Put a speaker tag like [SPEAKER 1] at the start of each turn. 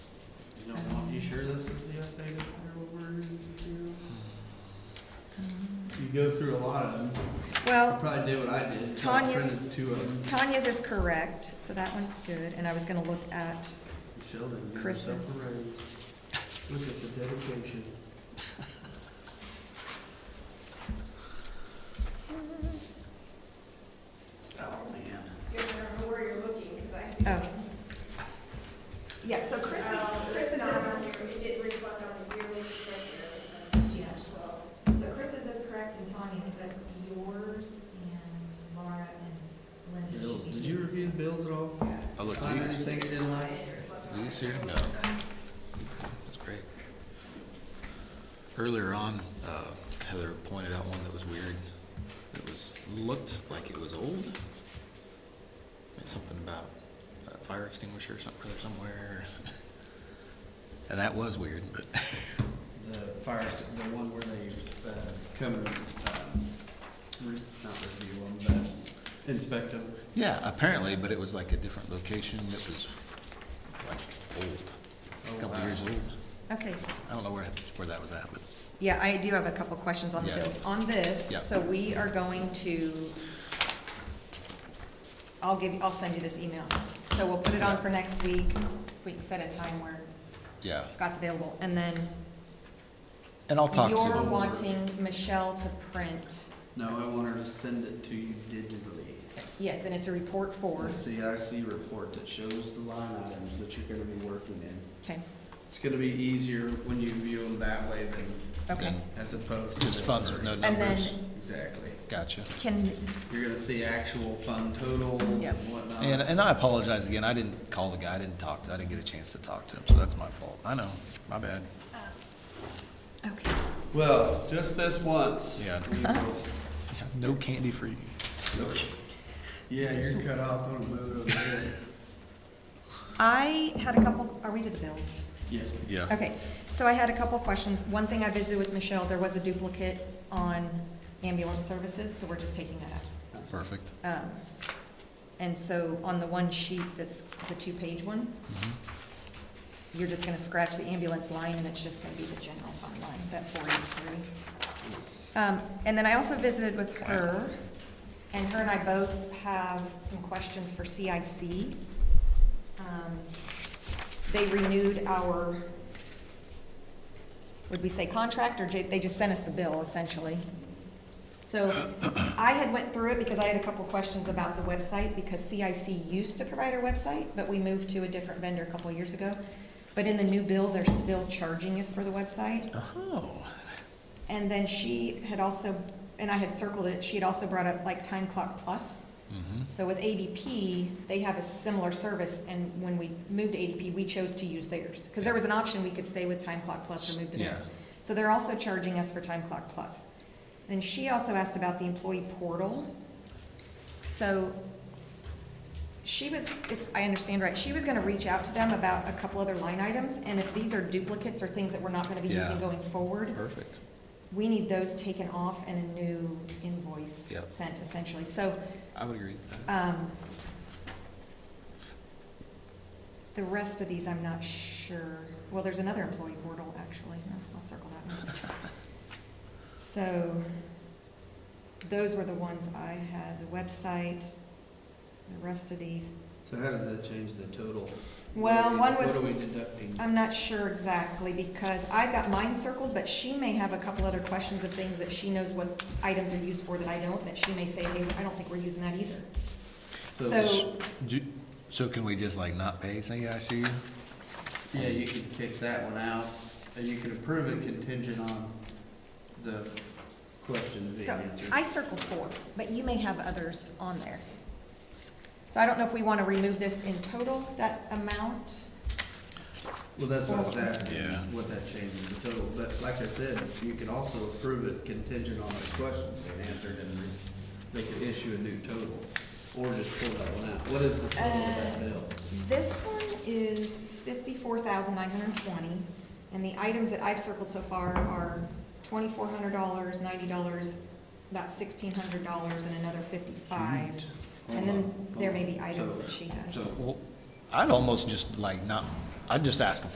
[SPEAKER 1] sure this is the updated Clearwater material? You go through a lot of them. You
[SPEAKER 2] Well,
[SPEAKER 1] probably did what I did. so I
[SPEAKER 2] Tanya's-
[SPEAKER 1] printed uh, two of them.
[SPEAKER 2] Tanya's is correct, so that one's good, and I was gonna look at,
[SPEAKER 1] Michelle didn't give
[SPEAKER 2] Chris's.
[SPEAKER 1] herself a raise. Look at the dedication. Oh, man.
[SPEAKER 3] You don't know where you're looking, because I see.
[SPEAKER 2] oh. Yeah, so
[SPEAKER 3] Chris
[SPEAKER 2] Chris's,
[SPEAKER 4] Uh,
[SPEAKER 3] is, Chris
[SPEAKER 2] Chris's
[SPEAKER 3] is
[SPEAKER 2] is,
[SPEAKER 3] on here, it didn't reflect on the yearly, it's right here, that's
[SPEAKER 4] Yeah.
[SPEAKER 3] page twelve.
[SPEAKER 4] So Chris's is correct and Tanya's, but yours and Laura and Linda. should
[SPEAKER 1] Bills,
[SPEAKER 4] be
[SPEAKER 1] did you
[SPEAKER 4] doing
[SPEAKER 1] review the
[SPEAKER 4] this.
[SPEAKER 1] bills at all?
[SPEAKER 5] Oh, look,
[SPEAKER 1] Find
[SPEAKER 5] these,
[SPEAKER 1] anything you didn't like?
[SPEAKER 5] these here? No. That's great. Earlier on, uh, Heather pointed out one that was weird. It was, looked like it was old. Like Something about a fire extinguisher or something or somewhere. And that was weird, but
[SPEAKER 1] The fire, st- the one where they, uh, come and, um, re- not review them, but inspect them.
[SPEAKER 5] yeah, apparently, but it was like a different location that was like old,
[SPEAKER 1] Oh,
[SPEAKER 5] a couple
[SPEAKER 1] wow.
[SPEAKER 5] years old.
[SPEAKER 2] okay,
[SPEAKER 5] I don't know where, where that was at, but
[SPEAKER 2] yeah, I do have a couple questions on the
[SPEAKER 5] Yeah.
[SPEAKER 2] bills. On this,
[SPEAKER 5] Yeah.
[SPEAKER 2] so we are going to, I'll give, I'll send you this email. So we'll put it on for next week, if we can set a time where
[SPEAKER 5] yeah.
[SPEAKER 2] Scott's available, and then
[SPEAKER 5] And I'll talk to them.
[SPEAKER 2] you're wanting Michelle to print,
[SPEAKER 1] No, I want her to send it to you digitally.
[SPEAKER 2] yes, and it's a report
[SPEAKER 1] The
[SPEAKER 2] for,
[SPEAKER 1] CIC report that shows the line items that you're gonna be working in.
[SPEAKER 2] okay,
[SPEAKER 1] It's gonna be easier when you view them that way than
[SPEAKER 2] okay.
[SPEAKER 5] Then
[SPEAKER 1] as opposed to.
[SPEAKER 5] Just
[SPEAKER 1] this
[SPEAKER 5] funds with no
[SPEAKER 1] version.
[SPEAKER 2] And then
[SPEAKER 5] numbers.
[SPEAKER 1] Exactly.
[SPEAKER 5] Gotcha.
[SPEAKER 2] can,
[SPEAKER 1] You're gonna see actual fund totals
[SPEAKER 2] Yep.
[SPEAKER 1] and whatnot.
[SPEAKER 5] And, and I apologize again. I didn't call the guy. I didn't talk to, I didn't get a chance to talk to him, so that's my fault. I know. My bad.
[SPEAKER 2] okay,
[SPEAKER 1] Well, just this once.
[SPEAKER 5] Yeah.
[SPEAKER 1] We will-
[SPEAKER 5] No candy for you.
[SPEAKER 1] Okay. Yeah, you're cut off on a move over there.
[SPEAKER 2] I had a couple, are we to the bills?
[SPEAKER 1] Yes.
[SPEAKER 5] Yeah.
[SPEAKER 2] Okay, so I had a couple questions. One thing I visited with Michelle, there was a duplicate on ambulance services, so we're just taking that out.
[SPEAKER 5] Perfect.
[SPEAKER 2] Um, And so on the one sheet that's the two-page one,
[SPEAKER 5] Mhm. Mm-hmm.
[SPEAKER 2] you're just gonna scratch the ambulance line, and it's just gonna be the general fund line, that forty-three. Um, and then I also visited with her, and her and I both have some questions for CIC. Um, They renewed our, would we say contract, or ju- they just sent us the bill essentially? So I had went through it because I had a couple questions about the website, because CIC used to provide our website, but we moved to a different vendor a couple of years ago. But in the new bill, they're still charging us for the website.
[SPEAKER 5] Oh,
[SPEAKER 2] And then she had also, and I had circled it, she had also brought up like Time Clock Plus.
[SPEAKER 5] Mhm.
[SPEAKER 2] So with ADP, they have a similar service, and when we moved to ADP, we chose to use theirs. Because there was an option, we could stay with Time Clock Plus or move to theirs.
[SPEAKER 5] Yeah.
[SPEAKER 2] So they're also charging us for Time Clock Plus. Then she also asked about the employee portal. So she was, if I understand right, she was gonna reach out to them about a couple other line items, and if these are duplicates or things that we're not gonna be
[SPEAKER 5] Yeah.
[SPEAKER 2] using going forward,
[SPEAKER 5] perfect.
[SPEAKER 2] we need those taken off and a new invoice
[SPEAKER 5] Yep.
[SPEAKER 2] sent essentially. So,
[SPEAKER 5] I would agree with that.
[SPEAKER 2] um, the rest of these, I'm not sure. Well, there's another employee portal, actually. I'll circle that one. So, those were the ones I had, the website, the rest of these.
[SPEAKER 1] So how does that change the total?
[SPEAKER 2] Well,
[SPEAKER 1] What
[SPEAKER 2] one
[SPEAKER 1] are we-
[SPEAKER 2] was.
[SPEAKER 1] What are we deducting?
[SPEAKER 2] I'm not sure exactly, because I've got mine circled, but she may have a couple other questions of things that she knows what items are used for that I don't, that she may say, hey, I don't think we're using that either. So,
[SPEAKER 5] Do, so can we just like not pay CIC?
[SPEAKER 1] Yeah, you could kick that one out, and you could approve it contingent on the questions being
[SPEAKER 2] so
[SPEAKER 1] answered.
[SPEAKER 2] I circled four, but you may have others on there. So I don't know if we want to remove this in total, that amount.
[SPEAKER 1] Well, that's what I was asking,
[SPEAKER 5] Yeah.
[SPEAKER 1] what that changes the total, but like I said, you could also approve it contingent on those questions being answered, and they could issue a new total, or just pull that one out. What is the total of that bill?
[SPEAKER 2] This one is fifty-four thousand nine hundred and twenty, and the items that I've circled so far are twenty-four hundred dollars, ninety dollars, about sixteen hundred dollars, and another fifty-five. And then there may be items that she has.
[SPEAKER 1] So,
[SPEAKER 5] Well, I'd almost just like not, I'd just ask them